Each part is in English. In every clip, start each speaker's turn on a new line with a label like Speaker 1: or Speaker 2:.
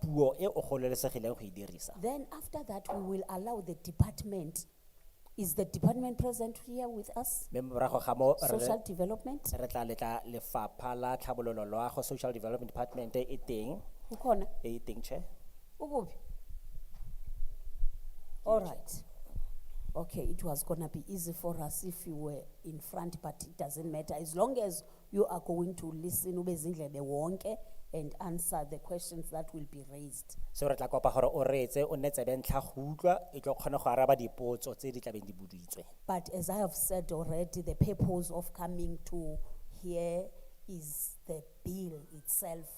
Speaker 1: puo e o gololesegileng go e dirisa
Speaker 2: Then after that, we will allow the department. Is the department present here with us?
Speaker 1: mme morago ga mo re-
Speaker 2: Social development?
Speaker 1: re tla letla lefapha la tlhabololo loago social development department e teng
Speaker 2: Ukona?
Speaker 1: e e teng chair
Speaker 2: Ukuphi? All right. Okay, it was gonna be easy for us if you were in front, but it doesn't matter. As long as you are going to listen, ube zindlebe wonke, and answer the questions that will be raised.
Speaker 1: seo re tla kopa gore o reetse o nne tsebe ntlha go utlwa e tlo kgona go araba dipotso tse di tlabeng di boditswe
Speaker 2: But as I have said already, the purpose of coming to here is the bill itself.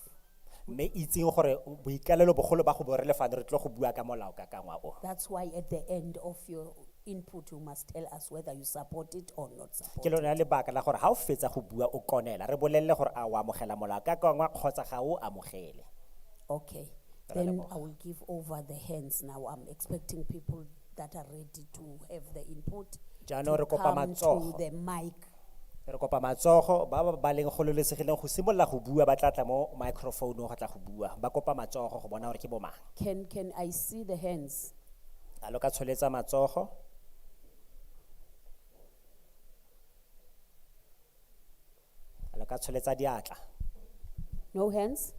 Speaker 1: mme itseng gore boikalelo bogolo ba go bo re lefane re tlo go bua ka molao ka kangwa o
Speaker 2: That's why at the end of your input, you must tell us whether you support it or not support
Speaker 1: ke
Speaker 2: it.
Speaker 1: lona lebaka la gore ga o fetsa go bua o konela re bolelele gore a o amogela molao ka kangwa kgotsa ga o amogele
Speaker 2: Okay,
Speaker 1: Ra
Speaker 2: then
Speaker 1: leboga.
Speaker 2: I will give over the hands now. I'm expecting people that are ready to have the input.
Speaker 1: Jaanong
Speaker 2: to
Speaker 1: re kopa
Speaker 2: come to
Speaker 1: matsogo.
Speaker 2: the mic.
Speaker 1: re kopa matsogo ba ba- ba leng gololesegileng go simolola go bua ba tla tla mo microphoneong go tla go bua ba kopa matsogo go bona gore ke bomang
Speaker 2: Can, can I see the hands?
Speaker 1: a lo ka tsholetsa matsogo a lo ka tsholetsa diatla
Speaker 2: No hands?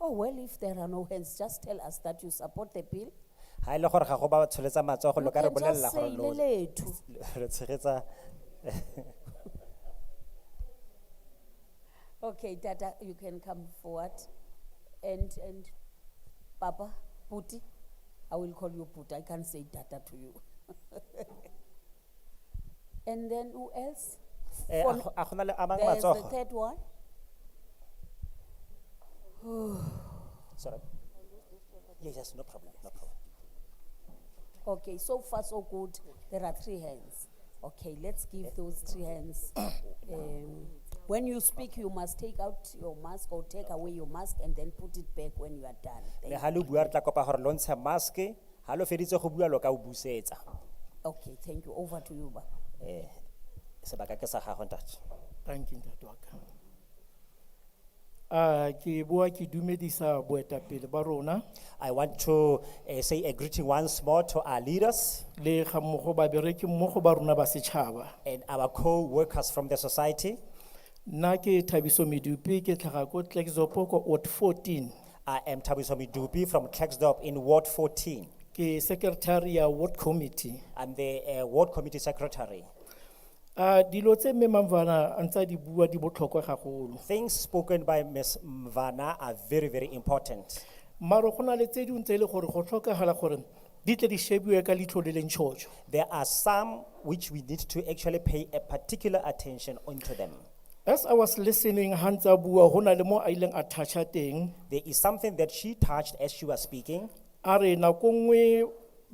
Speaker 2: Oh, well, if there are no hands, just tell us that you support the bill.
Speaker 1: ga e le gore ga go ba tsholetsa matsogo lo
Speaker 2: You
Speaker 1: ka re
Speaker 2: can
Speaker 1: bolelela
Speaker 2: just
Speaker 1: gore
Speaker 2: say
Speaker 1: lo-
Speaker 2: leletu.
Speaker 1: re tshegetsa
Speaker 2: Okay, Tata, you can come forward. And, and Papa, Puti, I will call you Puti, I can't say Tata to you. And then who else?
Speaker 1: Eh, a
Speaker 2: Fon-
Speaker 1: go- a gona le amang
Speaker 2: There's the
Speaker 1: matsogo
Speaker 2: third one.
Speaker 1: sorry yes yes no problem no problem
Speaker 2: Okay, so far so good. There are three hands. Okay, let's give those three hands. Um, when you speak, you must take out your mask or take away your mask and then put it back when you are done.
Speaker 1: mme
Speaker 2: Thank-
Speaker 1: ga lo bua re tla kopa gore lo ntshe maske ga lo feditse go bua lo ka o busetsa
Speaker 2: Okay, thank you. Over to you, Baba.
Speaker 1: Eh, sebaka ke sa gago ntate
Speaker 3: Thank you, Ntate waka. Ah, ke bua ke dumedisa boetapele ba rona
Speaker 1: I want to uh, say a greeting once more to our leaders
Speaker 3: le ga mmogo babereki mmogo ba rona ba setšhaba.
Speaker 1: and our co-workers from the society.
Speaker 3: Nna ke Thabiso Medupi ke tlhaga ko Klerksdorp ko Ward fourteen.
Speaker 1: I am Tabiso Midupi from Klexdorp in Ward 14.
Speaker 3: Ke secretary ya Ward Committee.
Speaker 1: I'm the uh, Ward Committee Secretary.
Speaker 3: Ah, dilo tse mme Mamvana ntsa di bua di botlhokwa gagolo.
Speaker 1: Things spoken by Ms. Mvana are very, very important.
Speaker 3: Maro go na le tse dingwe tse e le gore go tlhokagala gore di tle di shebiwe ka leitlho le leng tšhotšho.
Speaker 1: There are some which we need to actually pay a particular attention onto them.
Speaker 3: As I was listening, Hansa bua, ho na le mo a ileng a touch-a teng.
Speaker 1: There is something that she touched as she was speaking.
Speaker 3: a re nako nngwe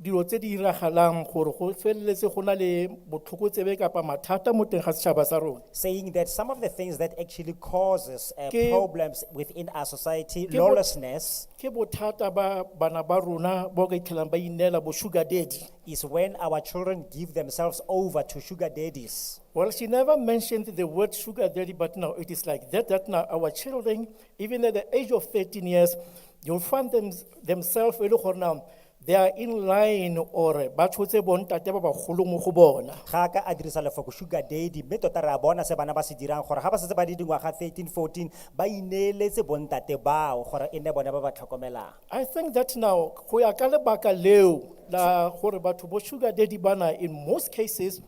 Speaker 3: dilo tse di diragalang gore go feleletse go na le botlhokotsebe kapa mathata mo teng ga setšhaba sa rona
Speaker 1: saying that some of the things that actually causes uh,
Speaker 3: Ke-
Speaker 1: problems within our society,
Speaker 3: bot-
Speaker 1: lawlessness,
Speaker 3: ke bothata ba bana ba rona bao ka itlhelang ba ineela bo sugar daddy
Speaker 1: is when our children give themselves over to sugar daddies.
Speaker 3: well she never mentioned the word sugar daddy but now it is like that that now our children even at the age of 13 years you'll find them, themselves e le gore now they are in line or ba tshotse bontate ba bagolo mo go bona
Speaker 1: Ga ka a dirisa lefoko sugar daddy, mme tota re a bona se bana ba se dirang gore ga ba setse ba le dingwaga 13, 14, ba ineeletse bontate bao gore e nne bone ba ba tlhokomelang.
Speaker 3: I think that now, go ya ka lebaka leo la gore batho bo sugar daddy bana in most cases,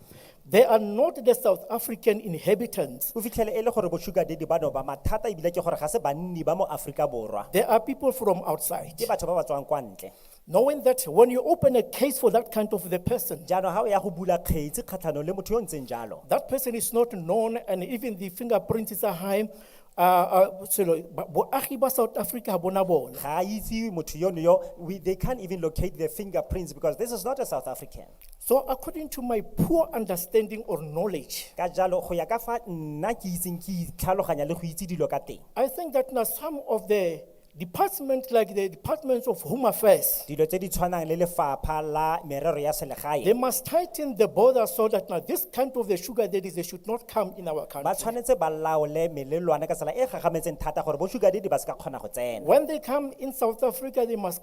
Speaker 3: they are not the South African inhabitants.
Speaker 1: O fitlhele e le gore bo sugar daddy bano ba mathata ebile ke gore ga se banni ba mo Aforika Borwa.
Speaker 3: They are people from outside.
Speaker 1: Ke batho ba ba tswang kwa ntle.
Speaker 3: Knowing that when you open a case for that kind of the person,
Speaker 1: Jaanong ga o ya go bula kgetsi kgatlhanong le motho yo o ntseng jalo,
Speaker 3: that person is not known and even the fingerprints are high. Uh, uh, selo, ba- boagi ba South Africa ha bona bona.
Speaker 1: ga a itse motho yono yo, we, they can't even locate their fingerprints because this is not a South African.
Speaker 3: So according to my poor understanding or knowledge,
Speaker 1: Ka jalo, go ya ka fa nna ke itseng ke itlhaloganya le go itse dilo ka teng.
Speaker 3: I think that now some of the departments like the departments of Home Affairs,
Speaker 1: dilo tse di tshwanang le lefapha la merero ya
Speaker 3: they
Speaker 1: selegae
Speaker 3: must tighten the border so that now this kind of the sugar daddies, they should not come in our
Speaker 1: ba
Speaker 3: country.
Speaker 1: tshwanetse ba laole melelwane ka tsela e gagametseng thata gore bo sugar daddy ba se ka kgona go tsena
Speaker 3: When they come in South Africa, they must